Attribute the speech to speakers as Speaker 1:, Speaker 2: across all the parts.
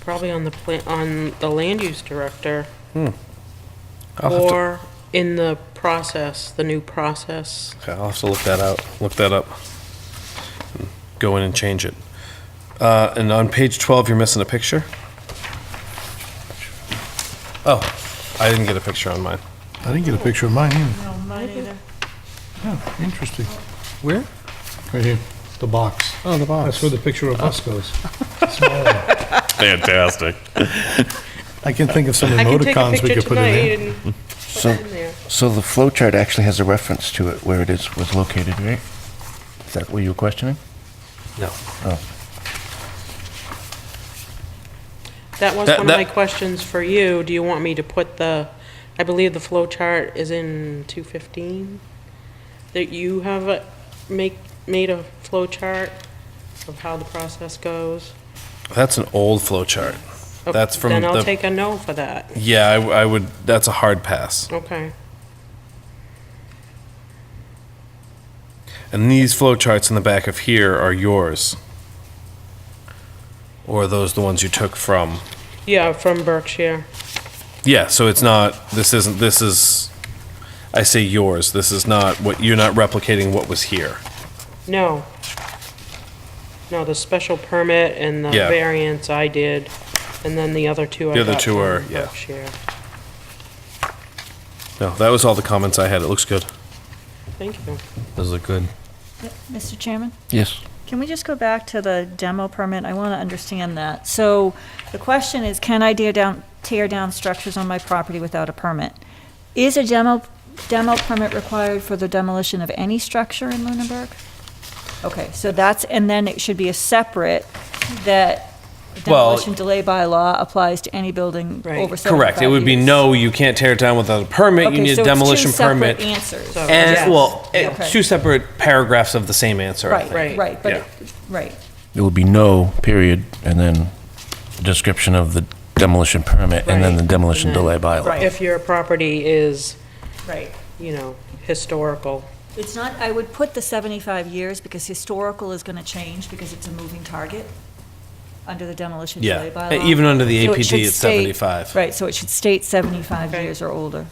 Speaker 1: probably on the pla, on the land use director.
Speaker 2: I'll have to,
Speaker 1: Or in the process, the new process.
Speaker 2: okay, I'll have to look that out, look that up. and Go in and change it. Uh, and on page twelve, you're missing a picture. Oh, I didn't get a picture on mine.
Speaker 3: I didn't get a picture of mine either.
Speaker 4: No, mine either.
Speaker 1: Oh,
Speaker 3: Yeah, interesting.
Speaker 2: Where?
Speaker 3: Right here, the box.
Speaker 2: Oh, the box. Oh.
Speaker 3: That's where the picture of us goes. Small one.
Speaker 5: Fantastic.
Speaker 3: I can think of some
Speaker 1: I can take a
Speaker 3: emoticons we
Speaker 1: picture
Speaker 3: could put in
Speaker 1: tonight
Speaker 3: there. Hmm.
Speaker 1: and put
Speaker 6: So-
Speaker 1: it in there.
Speaker 6: So the flow chart actually has a reference to it where it is, was located, right? Is that what you were questioning?
Speaker 2: No.
Speaker 1: That was
Speaker 2: That-
Speaker 1: one of my
Speaker 2: that-
Speaker 1: questions for you. Do you want me to put the, I believe the flow chart is in two fifteen? That you have a, make, made a flow chart of how the process goes?
Speaker 2: That's an old flow chart.
Speaker 1: Oh,
Speaker 2: That's from
Speaker 1: Then I'll
Speaker 2: the-
Speaker 1: take a no for that.
Speaker 2: Yeah, I, I would, that's a hard pass.
Speaker 1: Okay.
Speaker 2: And these flow charts in the back of here are yours. Or are those the ones you took from?
Speaker 1: Yeah, from Berkshire.
Speaker 2: Yeah, so it's not, this isn't, this is, I say yours, this is not what, you're not replicating what was here.
Speaker 1: No. No, the special permit and the
Speaker 2: Yeah.
Speaker 1: variance I did, and then the other two I
Speaker 2: The other
Speaker 1: got
Speaker 2: two
Speaker 1: from
Speaker 2: are- yeah.
Speaker 1: Berkshire.
Speaker 2: No, that was all the comments I had. It looks good.
Speaker 1: Thank you.
Speaker 5: Those look good.
Speaker 4: Mr. Chairman,
Speaker 6: Yes.
Speaker 4: can we just go back to the demo permit? I want to understand that. So the question is, can I tear down, tear down structures on my property without a permit? Is a demo, demo permit required for the demolition of any structure in Lunenburg? Okay, so that's, and then it should be a separate, that
Speaker 2: Well-
Speaker 4: demolition delay bylaw applies to any building
Speaker 1: Right.
Speaker 4: over 75
Speaker 2: Correct. It would be
Speaker 4: years.
Speaker 2: no, you can't tear it down without a permit.
Speaker 4: Okay,
Speaker 2: you need
Speaker 4: so
Speaker 2: a
Speaker 4: it's two
Speaker 2: demolition
Speaker 4: separate
Speaker 2: permit.
Speaker 4: Answers.
Speaker 1: So-
Speaker 2: and,
Speaker 1: Yes.
Speaker 2: well, it-
Speaker 4: Okay.
Speaker 2: two separate paragraphs of the same answer. I
Speaker 4: Right,
Speaker 2: think.
Speaker 4: right, right, but,
Speaker 2: Yeah.
Speaker 4: it- right.
Speaker 6: It would be no, period, and then description of the demolition permit, and then the
Speaker 1: Right.
Speaker 6: demolition
Speaker 1: And then-
Speaker 6: delay bylaw.
Speaker 4: Right.
Speaker 1: If your property is,
Speaker 4: Right.
Speaker 1: you know, historical,
Speaker 4: It's not, I would put the 75 years because historical is going to change because it's a moving target under the demolition delay
Speaker 2: Yeah.
Speaker 4: bylaw.
Speaker 2: And Even under the
Speaker 4: So it should
Speaker 2: APD, it's
Speaker 4: state-
Speaker 2: 75.
Speaker 4: Right, so it should state 75
Speaker 1: Okay.
Speaker 4: years or older.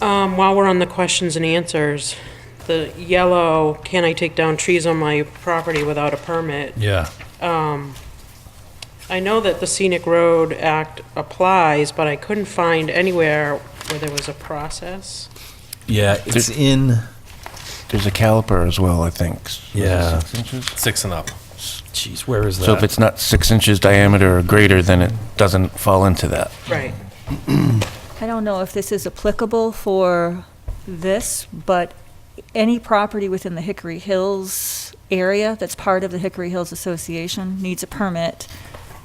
Speaker 1: Um, while we're on the questions and answers, the yellow, can I take down trees on my property without a permit? Um,
Speaker 3: Yeah.
Speaker 1: I know that the Scenic Road Act applies, but I couldn't find anywhere where there was a process.
Speaker 5: Yeah, it's in.
Speaker 6: There's a caliper as well, I think. s- was it
Speaker 5: Yeah.
Speaker 6: six inches?
Speaker 2: Six and up.
Speaker 5: Jeez, where is that?
Speaker 6: So if it's not six inches diameter or greater, then it doesn't fall into that.
Speaker 1: Right.
Speaker 4: I don't know if this is applicable for this, but any property within the Hickory Hills area that's part of the Hickory Hills Association needs a permit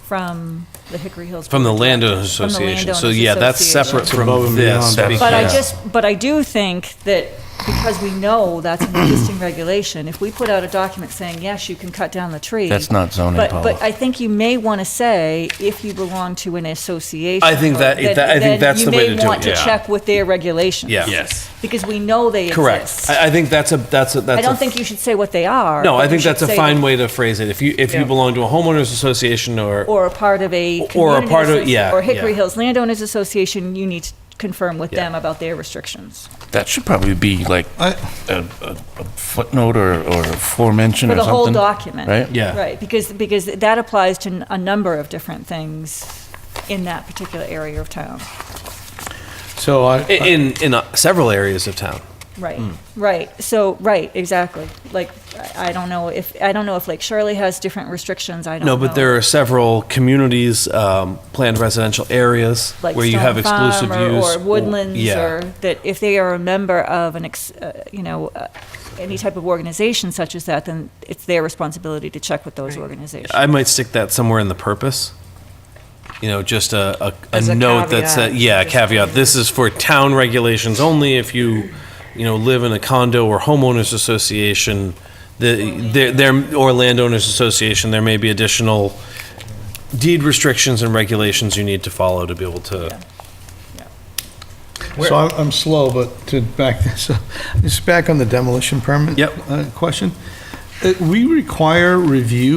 Speaker 4: from the Hickory Hills.
Speaker 2: From the
Speaker 4: Board of
Speaker 2: landowners
Speaker 4: From the
Speaker 2: association. So
Speaker 4: landowners
Speaker 2: yeah, that's
Speaker 4: association.
Speaker 2: separate
Speaker 3: It's
Speaker 2: from
Speaker 3: above and
Speaker 2: this.
Speaker 3: beyond that.
Speaker 4: But I
Speaker 2: because-
Speaker 4: just, but I do think that because we know that's an existing regulation, if we put out a document saying, yes, you can cut down the tree.
Speaker 6: That's not zoning
Speaker 4: But,
Speaker 6: policy.
Speaker 4: but I think you may want to say, if you belong to an association.
Speaker 2: I think
Speaker 4: or
Speaker 2: that- that- I think
Speaker 4: then
Speaker 2: that's the way to
Speaker 4: You
Speaker 2: do
Speaker 4: may want
Speaker 2: it,
Speaker 4: to
Speaker 2: yeah.
Speaker 4: check with their regulations.
Speaker 2: Yeah.
Speaker 5: Yes.
Speaker 4: Because we know they
Speaker 2: Correct.
Speaker 4: exist.
Speaker 2: I, I think that's a, that's a, that's
Speaker 4: I
Speaker 2: a
Speaker 4: don't think you should say what they are.
Speaker 2: No,
Speaker 4: but
Speaker 2: I
Speaker 4: you
Speaker 2: think
Speaker 4: should
Speaker 2: that's a
Speaker 4: say
Speaker 2: fine
Speaker 4: that-
Speaker 2: way to phrase it. If you if
Speaker 1: Yeah.
Speaker 2: you belong to a homeowners association or,
Speaker 4: Or a part of a
Speaker 2: Or a
Speaker 4: community.
Speaker 2: part of-
Speaker 4: associ-
Speaker 2: yeah,
Speaker 4: Or Hickory
Speaker 2: yeah.
Speaker 4: Hills Landowners Association, you need to confirm with
Speaker 2: Yeah.
Speaker 4: them about their restrictions.
Speaker 6: That should probably be like
Speaker 3: I-
Speaker 6: a a- a footnote or or aforementioned
Speaker 4: For
Speaker 6: or
Speaker 4: the
Speaker 6: something.
Speaker 4: whole document.
Speaker 6: Right?
Speaker 2: yeah,
Speaker 4: Right, because, because that applies to n- a number of different things in that particular area of town.
Speaker 3: So I,
Speaker 2: I- in in uh, several areas of town.
Speaker 4: Right,
Speaker 6: Hmm.
Speaker 4: right, so, right, exactly. Like, I I don't know if, I don't know if Lake Shirley has different restrictions, I don't know.
Speaker 2: No, but there are several communities, um, planned residential areas
Speaker 4: Like
Speaker 2: where you
Speaker 4: Stone
Speaker 2: have
Speaker 4: Farm
Speaker 2: exclusive
Speaker 4: or-
Speaker 2: use
Speaker 4: Or Woodlands,
Speaker 2: yeah.
Speaker 4: or that if they are a member of an, ex uh, you know, uh, any type of organization such as that, then it's their responsibility to check with those
Speaker 1: Right.
Speaker 4: organizations.
Speaker 2: I might stick that somewhere in the purpose. You know, just a, a, a
Speaker 1: As a
Speaker 2: note that
Speaker 1: caveat.
Speaker 2: says, yeah, a caveat. This is for town regulations only. If you, you know, live in a condo or homeowners association, the there, there or landowners association, there may be additional deed restrictions and regulations you need to follow to be able to.
Speaker 3: so I'm, I'm slow, but to back this up, just back on the demolition permit.
Speaker 2: Yep.
Speaker 3: uh, Question. Uh, We require review